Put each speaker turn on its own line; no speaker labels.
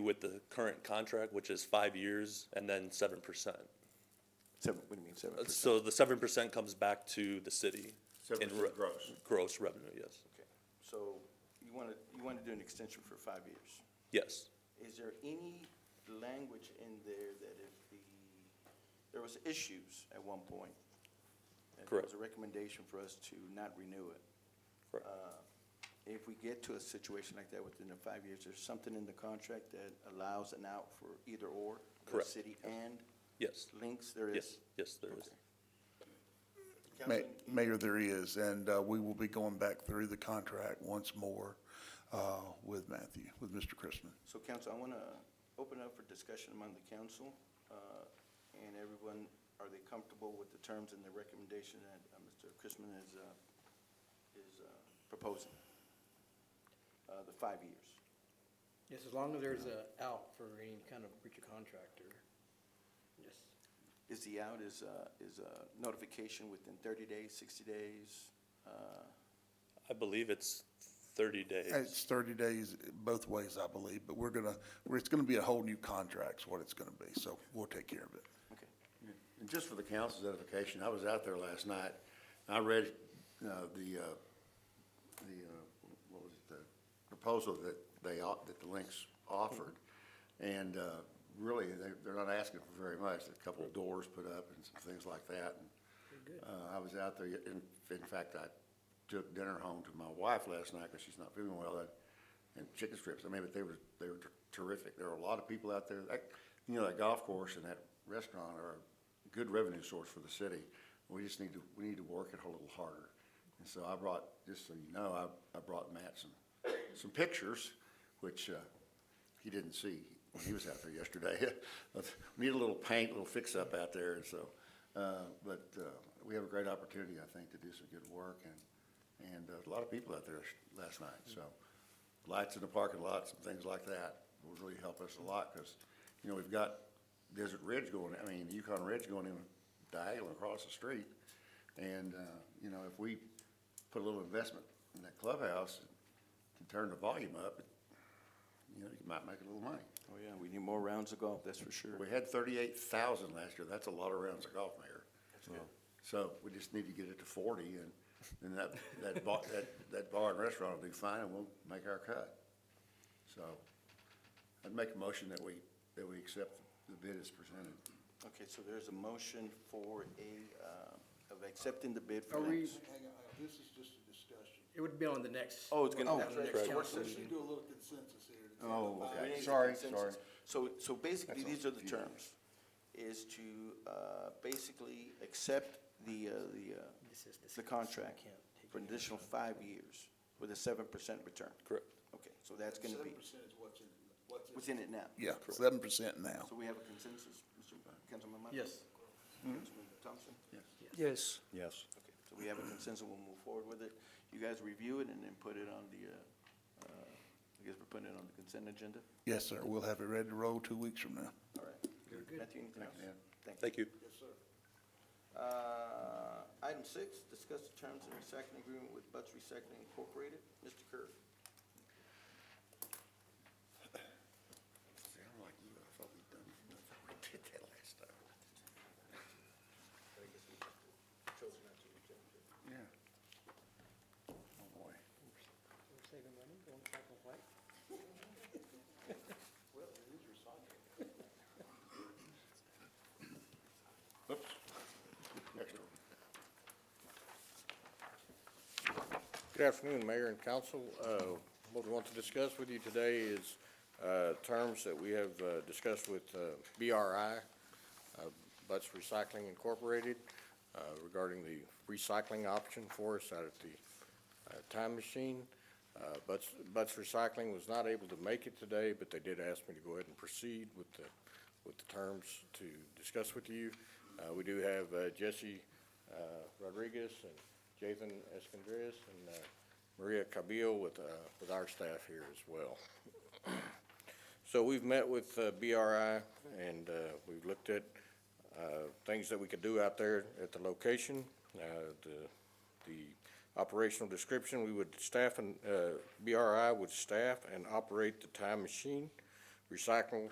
with the current contract, which is five years and then seven percent.
Seven, what do you mean, seven percent?
So the seven percent comes back to the city.
Seven
in
percent
re-
gross.
Gross revenue, yes.
So you want to, you want to do an extension for five years.
Yes.
Is there any language in there that if the, there was issues at one point? and
Correct.
There was a recommendation for us to not renew it.
Correct.
Uh, If we get to a situation like that within the five years, there's something in the contract that allows an out for either or? the
Correct.
City and
Yes.
links, there is?
Yes. Yes, there is.
Okay.
Ma-
Councilman,
Mayor, there is, and uh, we will be going back through the contract once more uh, with Matthew, with Mr. Christman.
So council, I want to open up for discussion among the council. uh, And everyone, are they comfortable with the terms and the recommendation that uh, Mr. Chrisman is, uh, is uh, proposing? Uh, The five years.
Yes, as long as there's a out for any kind of breach of contract or, yes,
Is the out, is, uh, is uh, notification within 30 days, 60 days? Uh,
I believe it's thirty days.
It's thirty days both ways, I believe, but we're gonna, we're- it's gonna be a whole new contract's what it's gonna be, so we'll take care of it.
Okay.
And just for the council's edification, I was out there last night, and I read, uh, the, uh, the, uh, what was it, the proposal that they, au- that the Lynx offered, and, uh, really, they, they're not asking for very much, a couple of doors put up and some things like that, and, uh, I was out there, in, in fact, I took dinner home to my wife last night, because she's not feeling well, and, and chicken strips, I mean, but they were, they were terrific, there were a lot of people out there, that, you know, that golf course and that restaurant are a good revenue source for the city, we just need to, we need to work it a little harder. And so I brought, just so you know, I, I brought Matt some, some pictures, which, uh, he didn't see when he was out there yesterday. We Need a little paint, a little fix-up out there, and so, uh, but, uh, we have a great opportunity, I think, to do some good work, and, and uh, a lot of people out there last night, so. Lights in the parking lots and things like that will really help us a lot, because, you know, we've got Desert Ridge going, I mean, Yukon Ridge going in diagonal across the street. And, uh, you know, if we put a little investment in that clubhouse and turn the volume up, you know, you might make a little money.
Oh, yeah, we need more rounds of golf, that's for sure.
We had thirty-eight thousand last year, that's a lot of rounds of golf, Mayor. So we just need to get it to forty, and then that, that bar, that, that bar and restaurant will do fine, and we'll make our cut. So, I'd make a motion that we, that we accept the bid as presented.
Okay, so there's a motion for a, uh, of accepting the bid for
Are we-
links.
Hang on, hang on, this is just a discussion.
it would be on the next.
Oh, it's gonna-
on
that's
the
right,
next
correct.
council
We
meeting.
should do a little consensus here.
Oh,
Uh, we
okay,
need
sorry, sorry.
consensus. So, so basically,
That's all.
these are the terms, is to, uh, basically accept the, uh, the, uh,
This is
the
discussed.
contract
Can't take
for an additional five years with a seven percent return.
Correct.
Okay, so that's gonna be,
Seven percent is what's in, what's in.
what's in it now.
Yeah, seven percent now.
So we have a consensus, Mr. Councilman Mata?
Yes.
Councilman Thompson?
Yes.
Yes.
Okay, so we have a consensus, we'll move forward with it. You guys review it and then put it on the, uh, uh, I guess we're putting it on the consent agenda?
Yes, sir, we'll have it ready to roll two weeks from now.
All right. Matthew, anything else?
Dan.
Thank you.
Thank you.
Uh, Item six, discuss the terms of recycling agreement with Butts Recycling Incorporated. Mr. Kerr.
See, I'm like you, I thought we'd done, I thought we did that last time. Yeah. Oh, boy. Oops. Extra.
Good afternoon, Mayor and Council. Uh, What we want to discuss with you today is uh, terms that we have uh, discussed with uh, BRI, uh, Butts Recycling Incorporated, uh, regarding the recycling option for us out at the uh, Time Machine. Uh, Butts Butts Recycling was not able to make it today, but they did ask me to go ahead and proceed with the, with the terms to discuss with you. Uh, We do have uh, Jesse uh, Rodriguez and Jathan Escondres and uh, Maria Cabillo with, uh, with our staff here as well. So we've met with uh, BRI and uh, we've looked at uh, things that we could do out there at the location. Uh, The, the operational description, we would staff and, uh, BRI would staff and operate the time machine recycling